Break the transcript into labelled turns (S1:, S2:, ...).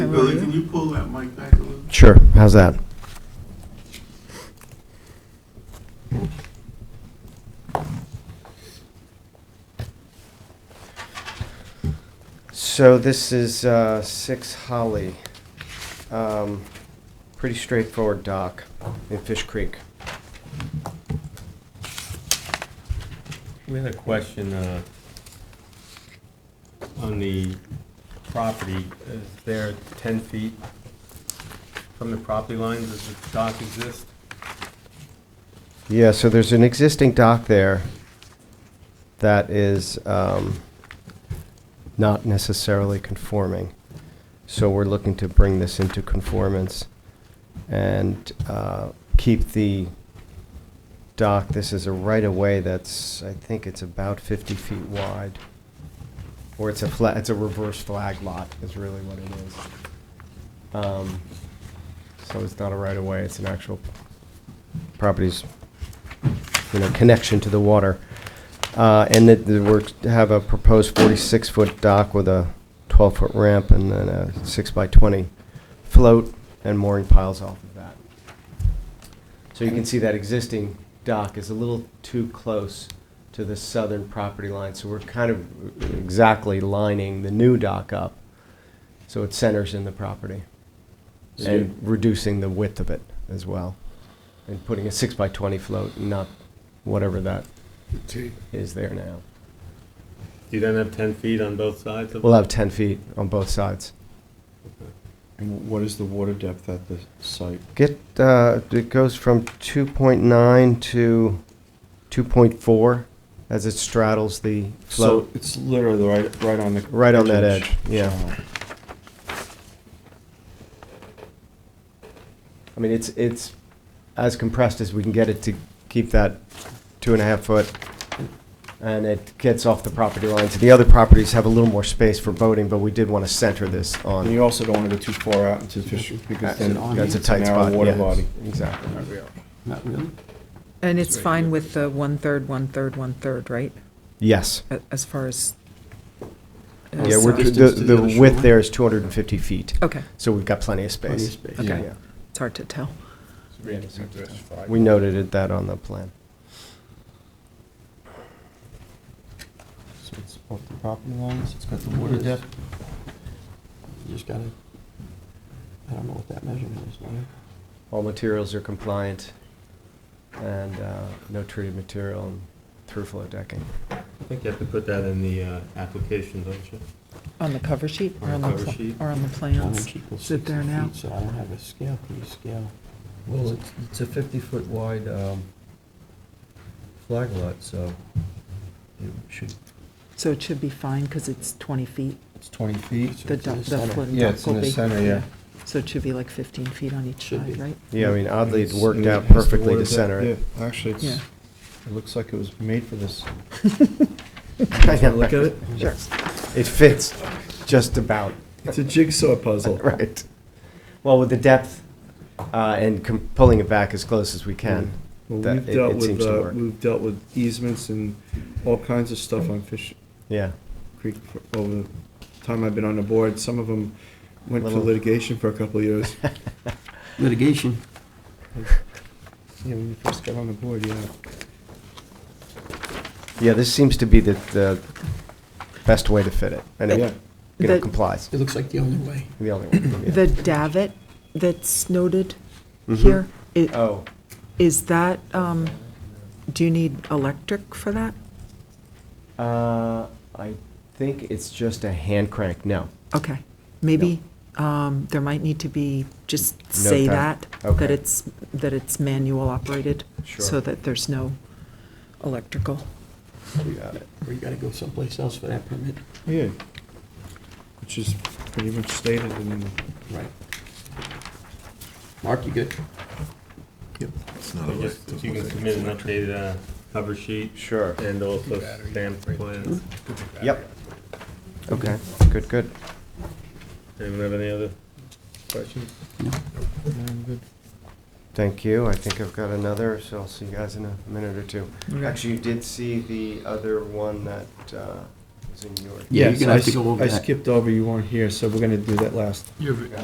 S1: Billy, can you pull that mic back a little?
S2: Sure, how's that? So this is uh, 6 Holly. Um, Pretty straightforward dock in Fish Creek.
S3: We had a question uh, on the property. Is there 10 feet from the property line, does the dock exist?
S2: Yeah, so there's an existing dock there that is um, not necessarily conforming. So we're looking to bring this into conformance and uh, keep the dock, this is a right-of-way that's, I think it's about 50 feet wide. Or it's a flat, it's a reverse flag lot is really what it is. Um, So it's not a right-of-way, it's an actual property's you know, connection to the water. Uh, And that the works, have a proposed 46-foot dock with a 12-foot ramp and then a 6-by-20 float and mooring piles off of that. So you can see that existing dock is a little too close to the southern property line, so we're kind of exactly lining the new dock up, so it centers in the property. And reducing the width of it as well, and putting a six-by-20 float, not whatever that is there now.
S3: You then have 10 feet on both sides of it?
S2: We'll have 10 feet on both sides.
S4: And what is the water depth at the site?
S2: Get, uh, it goes from 2.9 to 2.4 as it straddles the
S4: So
S2: float.
S4: it's literally right, right on the.
S2: Right on that
S4: edge.
S2: edge, yeah.
S4: Wow.
S2: I mean, it's, it's as compressed as we can get it to keep that two and a half foot. And it gets off the property lines. The other properties have a little more space for boating, but we did want to center this
S4: And
S2: on.
S4: you also don't want to go too far out into the fish, because then
S2: That's a
S4: it's a
S2: tight spot.
S4: narrow water
S2: yeah.
S4: body.
S2: Exactly.
S1: Not really?
S5: And it's fine with the one-third, one-third, one-third, right?
S2: Yes.
S5: A- As far as. as,
S2: Yeah, we're,
S5: uh,
S1: distance
S2: the,
S1: to the
S2: the
S1: other
S2: width
S1: shoreline?
S2: there is 250 feet,
S5: Okay,
S2: so we've got plenty of
S1: Plenty of
S2: space.
S1: space.
S5: Okay.
S2: Yeah.
S5: it's hard to tell.
S2: We noted it- that on the plan.
S4: So it's off the property lines, it's got the
S1: water depth. You just gotta, I don't know what that measurement is, man.
S2: All materials are compliant and uh, no treated material and through flow decking.
S3: I think you have to put that in the uh, application, don't you?
S5: On the cover sheet or
S3: On
S5: on
S3: the
S5: the,
S3: cover
S5: pla-
S3: sheet.
S5: or on the
S1: Mine
S5: plans?
S1: is equal
S5: Sit there
S1: 60
S5: now.
S1: feet, So I don't have a scale, can you scale?
S6: Well, it's, it's a fifty-foot wide, um, flag lot, so it should,
S5: So it should be fine because it's 20 feet,
S6: it's twenty feet.
S5: the
S1: it's in the
S5: dock, the
S1: center.
S5: floating
S6: Yeah,
S5: dock
S6: it's
S5: will
S6: in the
S5: be-
S6: center, yeah.
S5: So it should be like 15 feet on each
S1: Should
S5: side,
S1: be.
S5: right?
S2: Yeah, I mean, oddly, it
S6: It's-
S2: worked
S6: and
S2: out
S6: has the
S2: perfectly to
S6: water depth,
S2: center it.
S6: yeah. Actually, it's, it looks like it was made for this. Look at it.
S5: Sure.
S2: It fits just about,
S6: It's a jigsaw puzzle.
S2: right. Well, with the depth uh, and com- pulling it back as close as we can,
S6: Well,
S2: that
S6: we've
S2: it-
S6: dealt
S2: it
S6: with,
S2: seems to
S6: uh,
S2: work.
S6: We've dealt with easements and all kinds of stuff on Fish
S2: yeah.
S6: Creek for- over the time I've been on the board. Some of them went to
S2: Little-
S6: litigation for a couple of years.
S1: Litigation.
S6: Yeah, when you first got on the board, yeah.
S2: Yeah, this seems to be the, the best way to fit it, and
S6: Yeah.
S2: it, you know,
S5: The-
S2: complies,
S1: It looks like the only way.
S2: the only one. yeah.
S5: The davit that's noted
S2: Mm-hmm.
S5: here, i-
S2: Oh,
S5: is that, um, do you need electric for that?
S2: uh, I think it's just a hand crank, no.
S5: Okay, maybe, um, there might need to be, just say
S2: Note
S5: that,
S2: that.
S5: that
S2: Okay.
S5: it's, that it's manual operated, so
S2: Sure.
S5: that there's no electrical.
S2: You got it.
S1: Or you gotta go someplace else for that permit.
S6: Yeah. Which is pretty much stated in the
S1: Right. Mark, you good?
S3: You just- You can submit an updated uh, cover sheet
S2: Sure.
S3: and also stamped plans.
S2: Yep. Okay, good, good.
S3: Anyone have any other questions?
S2: Thank you. I think I've got another, so I'll see you guys in a minute or two.
S5: Okay.
S2: Actually, you did see the other one that uh, was in your.
S1: Yeah, you're gonna
S6: I
S1: have to
S6: s-
S1: go over
S6: I
S1: that.
S6: skipped over, you weren't here, so we're gonna do that last.